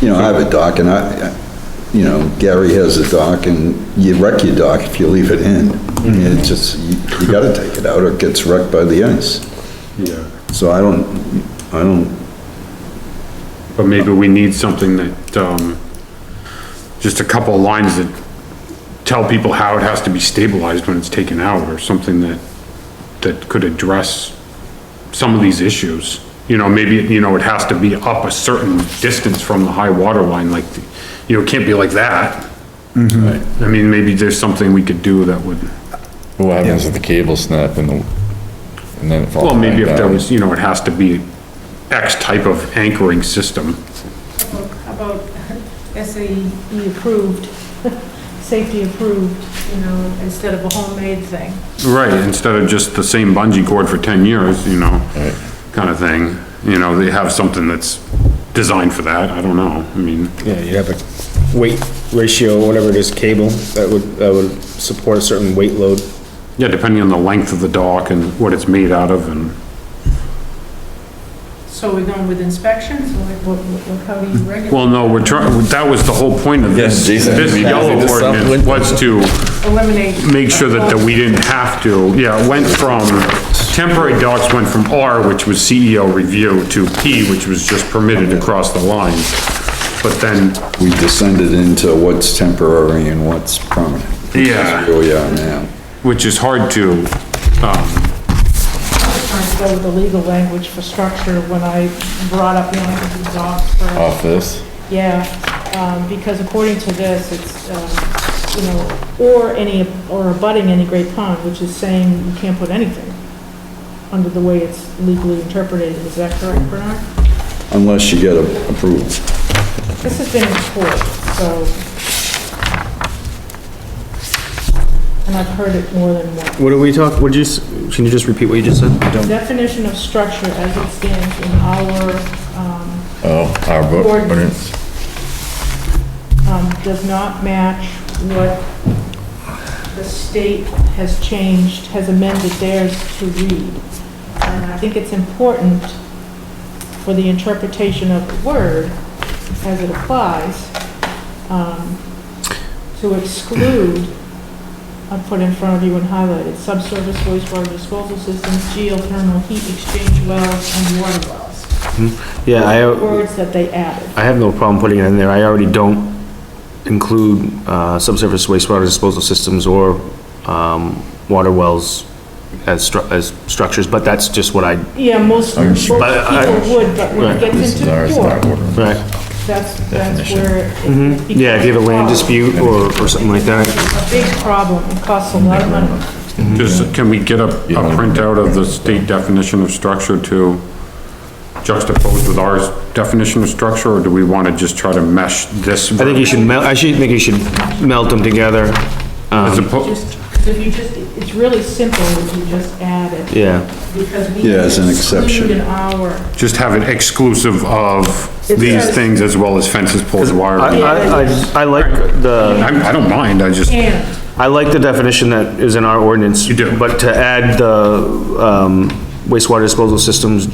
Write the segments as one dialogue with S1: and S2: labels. S1: You know, I have a dock and I, I- you know, Gary has a dock and you wreck your dock if you leave it in. It just, you you gotta take it out or it gets wrecked by the ice.
S2: Yeah,
S1: So I don't, I don't,
S2: but maybe we need something that, um, just a couple of lines that tell people how it has to be stabilized when it's taken out, or something that, that could address some of these issues. You know, maybe, you know, it has to be up a certain distance from the high water line, like, you know, it can't be like that. I mean, maybe there's something we could do that would,
S3: What happens if the cable snap and the, and then it falls?
S2: well, maybe if
S3: back
S2: there
S3: down?
S2: was, you know, it has to be X type of anchoring system.
S4: How about SAE approved, safety approved, you know, instead of a homemade thing.
S2: Right, instead of just the same bungee cord for ten years, you know,
S3: Right.
S2: kinda thing. You know, they have something that's designed for that, I don't know, I mean,
S5: Yeah, you have a weight ratio, whatever it is, cable, that would, that would support a certain weight load.
S2: yeah, depending on the length of the dock and what it's made out of and,
S4: So we're going with inspections, or like, what, what, how do you regulate,
S2: well, no, we're trying, that was the whole point of this.
S3: Yeah, Jason,
S2: This
S3: we
S2: yellow
S3: did this up,
S2: ordinance
S3: wouldn't we?
S2: was to
S4: eliminate?
S2: make sure that, that we didn't have to, yeah, it went from, temporary docks went from R, which was CEO review, to P, which was just permitted across the line. But then
S1: we descended into what's temporary and what's permanent.
S2: Yeah.
S1: That's where we are now.
S2: which is hard to, um,
S4: Trying to go with the legal language for structure when I brought up the language of dogs for.
S2: Oh,
S3: Off this,
S4: Yeah, um, because according to this, it's, um, you know, or any, or abutting any great pond, which is saying you can't put anything under the way it's legally interpreted, is that correct, Bernard?
S1: Unless you get a- approved.
S4: This has been in court, so. And I've heard it more than once.
S5: What are we talk, would you, s- can you just repeat what you just said? I don't-
S4: Definition of structure as it stands in our, um,
S3: oh, our book,
S4: Ordinance. um, does not match what the state has changed, has amended theirs to read. And I think it's important for the interpretation of the word as it applies, um, to exclude, I put in front of you and highlighted, subsurface wastewater disposal systems, geothermal heat exchange wells, and water wells.
S5: Yeah, I,
S4: Words that they added.
S5: I have no problem putting it in there. I already don't include, uh, subsurface wastewater disposal systems or, um, water wells as stru, as structures, but that's just what I,
S4: Yeah, most, most people
S5: But I-
S4: would, but when it
S5: Right.
S4: gets
S3: This is ours,
S4: into
S3: our
S4: court,
S3: ordinance.
S5: right?
S4: that's, that's
S3: Definition.
S4: where. it- it
S5: Mm-hmm. Yeah, if you have a land
S4: becomes
S5: dispute or, or something like that.
S4: A big problem, it costs a lot of money.
S2: just, can we get a, a
S3: Yeah.
S2: printout of the state definition of structure to juxtapose with our definition of structure, or do we wanna just try to mesh this?
S5: I think you should melt, I should think you should melt them together.
S2: As
S5: um,
S2: opposed,
S4: Just, if you just, it's really simple if you just add it,
S5: Yeah,
S4: because we.
S1: Yeah, as an exception.
S4: Exclude an hour.
S2: just have it exclusive of these
S4: says-
S2: things as well as fences, poles, wire.
S5: I,
S2: I,
S5: I, I- I like the,
S2: I don't mind, I just,
S4: And,
S5: I like the definition that is in our ordinance.
S2: You do.
S5: But to add the, um, wastewater disposal systems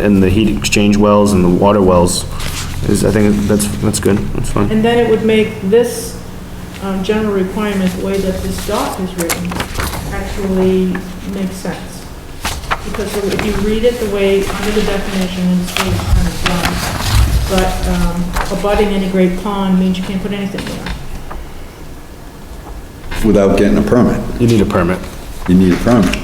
S5: and the heat exchange wells and the water wells is, I think that's, that's good, that's fine.
S4: and then it would make this, um, general requirement, the way that this doc is written, actually makes sense. Because if you read it the way, under the definition, and it's really kind of dumb, but, um, abutting any great pond means you can't put anything there.
S1: without getting a permit.
S5: You need a permit.
S1: You need a permit.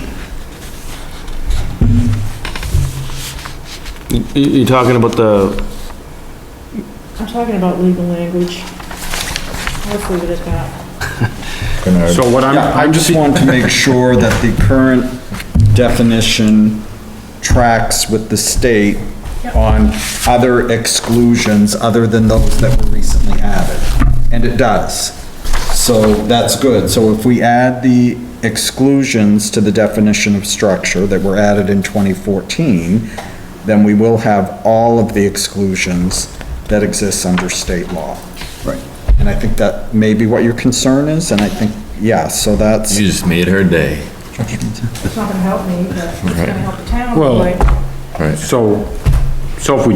S5: You, you're talking about the,
S4: I'm talking about legal language. Let's leave it at that.
S2: so what I'm,
S6: Yeah, I
S2: I'm just,
S6: just want to make sure that the current definition tracks with the state on other exclusions other than those that were recently added, and it does. So that's good. So if we add the exclusions to the definition of structure that were added in 2014, then we will have all of the exclusions that exist under state law. Right. And I think that may be what your concern is, and I think, yeah, so that's.
S3: You just made her day.
S4: It's not gonna help me, but it's gonna help the town.
S2: Well-
S4: right?
S3: Right.
S2: so, so if we